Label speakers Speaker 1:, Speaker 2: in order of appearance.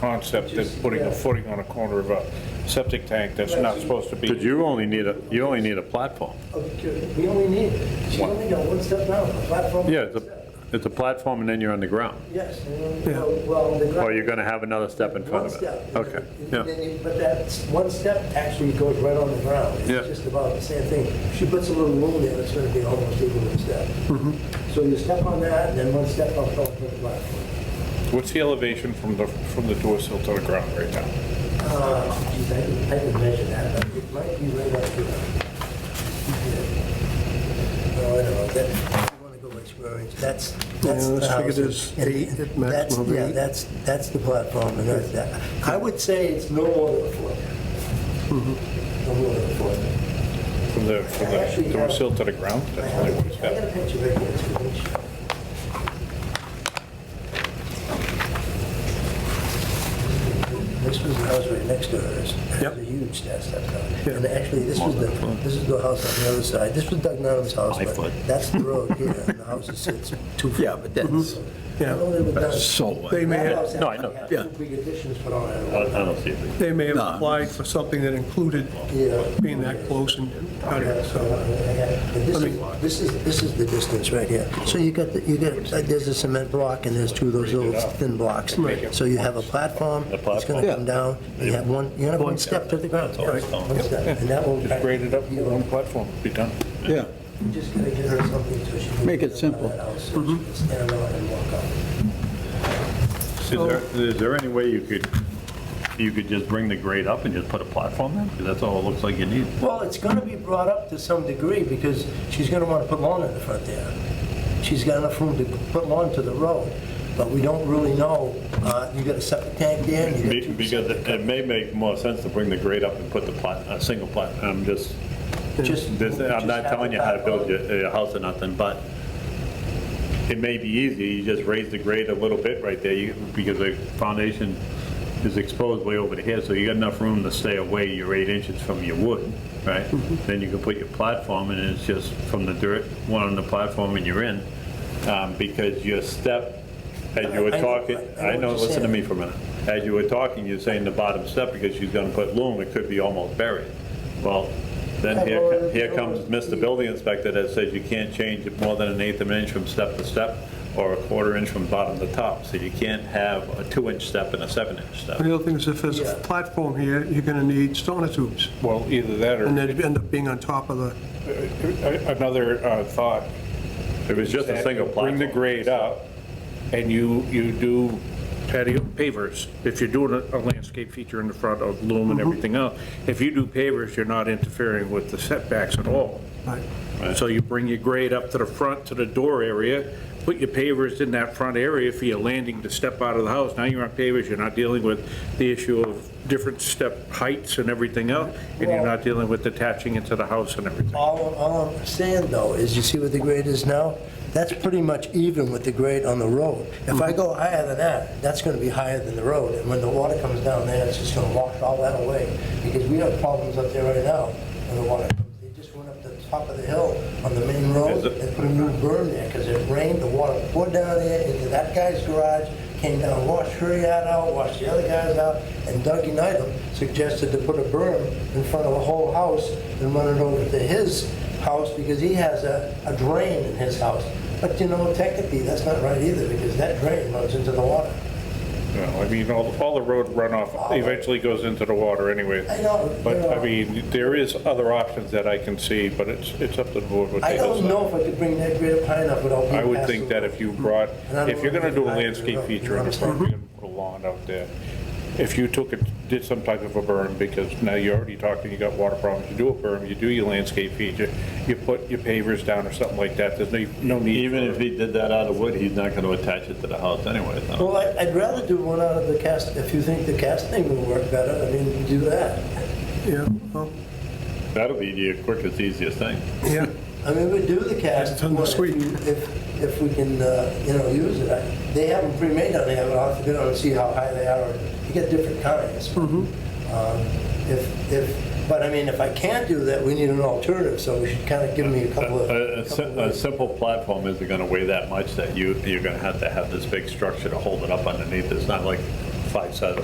Speaker 1: concept than putting a footing on a corner of a septic tank that's not supposed to be.
Speaker 2: But you only need a, you only need a platform.
Speaker 3: Okay, We only need, she only got one step down, the platform.
Speaker 2: Yeah, it's a, it's a platform and then you're on the ground.
Speaker 3: Yes, and then, well, well, the ground.
Speaker 2: Or you're gonna have another step in front of it.
Speaker 3: One
Speaker 2: Okay,
Speaker 3: step.
Speaker 2: yeah.
Speaker 3: yeah. But that s- one step actually goes right on the ground.
Speaker 2: Yeah.
Speaker 3: It's just about the same thing. If She puts a little room there, it's gonna be almost equal to a step.
Speaker 2: Mm-hmm.
Speaker 3: So you step on that, and then one step up on the platform.
Speaker 1: What's the elevation from the, from the door sill to the ground right now?
Speaker 3: Uh, geez, I can, I can measure that, but it might be right up here. Yeah. No, I don't know, that, you wanna go by square inch, that's, that's
Speaker 4: Yeah,
Speaker 3: the
Speaker 4: let's figure
Speaker 3: house.
Speaker 4: this
Speaker 3: And
Speaker 4: eight, at
Speaker 3: that's-
Speaker 4: maximum of
Speaker 3: Yeah,
Speaker 4: eight.
Speaker 3: that's, that's the platform, and that's that. I would say it's no more than a foot. No more than a foot.
Speaker 1: From the, from the door sill to the ground?
Speaker 3: I
Speaker 1: That's
Speaker 3: have
Speaker 1: only
Speaker 3: a
Speaker 1: what it's
Speaker 3: picture- I got
Speaker 1: got.
Speaker 3: a picture right here, too, which, this was the house right next to hers.
Speaker 4: Yep.
Speaker 3: It was a huge step step down. And actually, this was the, this is the house on the other side. This was Doug Nolan's house,
Speaker 5: Five
Speaker 3: but
Speaker 5: foot.
Speaker 3: that's the road here, and the house sits two feet.
Speaker 5: Yeah, but that's,
Speaker 4: Yeah.
Speaker 3: Although they were done-
Speaker 5: so what?
Speaker 4: They may
Speaker 3: That
Speaker 4: have,
Speaker 3: house
Speaker 2: No, I know.
Speaker 3: actually
Speaker 5: Yeah.
Speaker 3: had two big additions put on
Speaker 2: I I
Speaker 3: it.
Speaker 2: don't see it.
Speaker 4: they may have
Speaker 5: No.
Speaker 4: applied for something that included
Speaker 3: Yeah.
Speaker 4: being that close and cut
Speaker 3: Yeah,
Speaker 4: it,
Speaker 3: so,
Speaker 4: so.
Speaker 3: uh, yeah. But This is, this is, this is the distance right here. So you got, the- you got, uh, there's a cement block and there's two of those little thin blocks. So you have a platform, it's
Speaker 2: platform.
Speaker 3: gonna come down, you have one, you have one step to the ground.
Speaker 2: always
Speaker 3: Yeah,
Speaker 2: done.
Speaker 3: one step, And that will.
Speaker 1: Just grade it up, put one platform, be done.
Speaker 5: yeah,
Speaker 3: You Just gotta give her something so she can.
Speaker 5: Make it simple.
Speaker 3: get out of that house, so she
Speaker 1: Mm-hmm.
Speaker 3: can Stand on and walk out.
Speaker 2: Is there, is there any way you could, you could just bring the grade up and just put a platform there? Because that's all it looks like you need.
Speaker 3: Well, it's going to be brought up to some degree because she's going to want to put lawn in the front there. She's got enough room to put lawn to the road, but we don't really know. Uh, You got a septic tank there and you got two...
Speaker 2: Because it it may make more sense to bring the grade up and put the plat, a single plat, I'm just,
Speaker 3: Just-
Speaker 2: this- I'm not
Speaker 3: just
Speaker 2: telling you how to build your, your house or nothing, but it may be easy, you just raise the grade a little bit right there, you- because the foundation is exposed way over the head, so you got enough room to stay away your eight inches from your wood, right?
Speaker 3: Mm-hmm.
Speaker 2: Then you can put your platform, and it's just from the dirt, one on the platform, and you're in, um, because your step, as you were
Speaker 3: I- I know-
Speaker 2: talking,
Speaker 3: I know
Speaker 2: I
Speaker 3: what
Speaker 2: know,
Speaker 3: you're
Speaker 2: listen to
Speaker 3: saying.
Speaker 2: me for a minute. As you were talking, you're saying the bottom step, because she's gonna put loom, it could be almost buried. Well, then here, co- here comes Mr. Building Inspector that says you can't change it more than an eighth of an inch from step to step, or a quarter inch from bottom to top, so you can't have a two-inch step and a seven-inch step.
Speaker 4: The other thing is if there's a
Speaker 3: Yeah.
Speaker 4: platform here, you're gonna need sonotubes,
Speaker 1: Well, either that
Speaker 4: and
Speaker 1: or,
Speaker 4: they'd end up being on top of the,
Speaker 1: another uh, thought.
Speaker 2: If it's just a
Speaker 1: that
Speaker 2: single platform.
Speaker 1: Bring the grade up, and you, you do patio pavers. If you're doing a- a landscape feature in the front of loom and everything else, if you do pavers, you're not interfering with the setbacks at all.
Speaker 4: like,
Speaker 1: So you bring your grade up to the front, to the door area, put your pavers in that front area for your landing to step out of the house. Now you're on pavers, you're not dealing with the issue of different step heights and everything else, and you're not dealing with detaching into the house and everything.
Speaker 3: All, all I'm saying though is, you see what the grade is now? That's pretty much even with the grade on the road. If I go higher than that, that's gonna be higher than the road. And when the water comes down there, it's just gonna wash all that away. Because we have problems up there right now when the water comes. They just went up the top of the hill on the main road
Speaker 2: Is it-
Speaker 3: and put a new berm there because it rained, the water poured down there into that guy's garage, came down, washed her yard out, washed the other guys out, and Doug Unitem suggested to put a berm in front of the whole house and run it over to his house because he has a, a drain in his house. But you know, technically, that's not right either because that drain runs into the water.
Speaker 1: You know, I mean, all, all the road runoff eventually goes into the water anyway.
Speaker 3: I know,
Speaker 1: But,
Speaker 3: yeah.
Speaker 1: I mean, there is other options that I can see, but it's, it's up to the board what
Speaker 3: I
Speaker 1: they
Speaker 3: don't
Speaker 1: decide.
Speaker 3: know if I could bring that great pine up without being
Speaker 1: I would
Speaker 3: past
Speaker 1: think
Speaker 3: the-
Speaker 1: that if you brought,
Speaker 3: Hmm. And I don't
Speaker 1: if you're
Speaker 3: know
Speaker 1: gonna do a
Speaker 3: if I-
Speaker 1: landscape feature in the front, you're gonna put a lawn out there. If you took it, did some type of a berm, because now you're already talking, you got water problems, you do a berm, you do your landscape feature, you put your pavers down or something like that, there's no, no need.
Speaker 2: Even
Speaker 1: for-
Speaker 2: if he did that out of wood, he's not gonna attach it to the house anyway, so.
Speaker 3: Well, I- I'd rather do one out of the cast, if you think the casting will work better, I mean, do that.
Speaker 4: yeah, well,
Speaker 2: That'll be the quickest, easiest thing.
Speaker 4: yeah.
Speaker 3: I mean, we do the cast.
Speaker 4: It's on the
Speaker 3: one if
Speaker 4: suite.
Speaker 3: you- If, if we can, uh, you know, use it. I- They have them pre-made down there, but I'll have to go down and see how high they are. You get different kinds.
Speaker 4: Mm-hmm.
Speaker 3: Um, If, if, but I mean, if I can't do that, we need an alternative, so we should kind of give me a
Speaker 2: A-
Speaker 3: couple of.
Speaker 2: A,
Speaker 3: couple
Speaker 2: a si-
Speaker 3: of
Speaker 2: a
Speaker 3: ways.
Speaker 2: simple platform isn't gonna weigh that much that you, you're gonna have to have this big structure to hold it up underneath. It's not like five sides,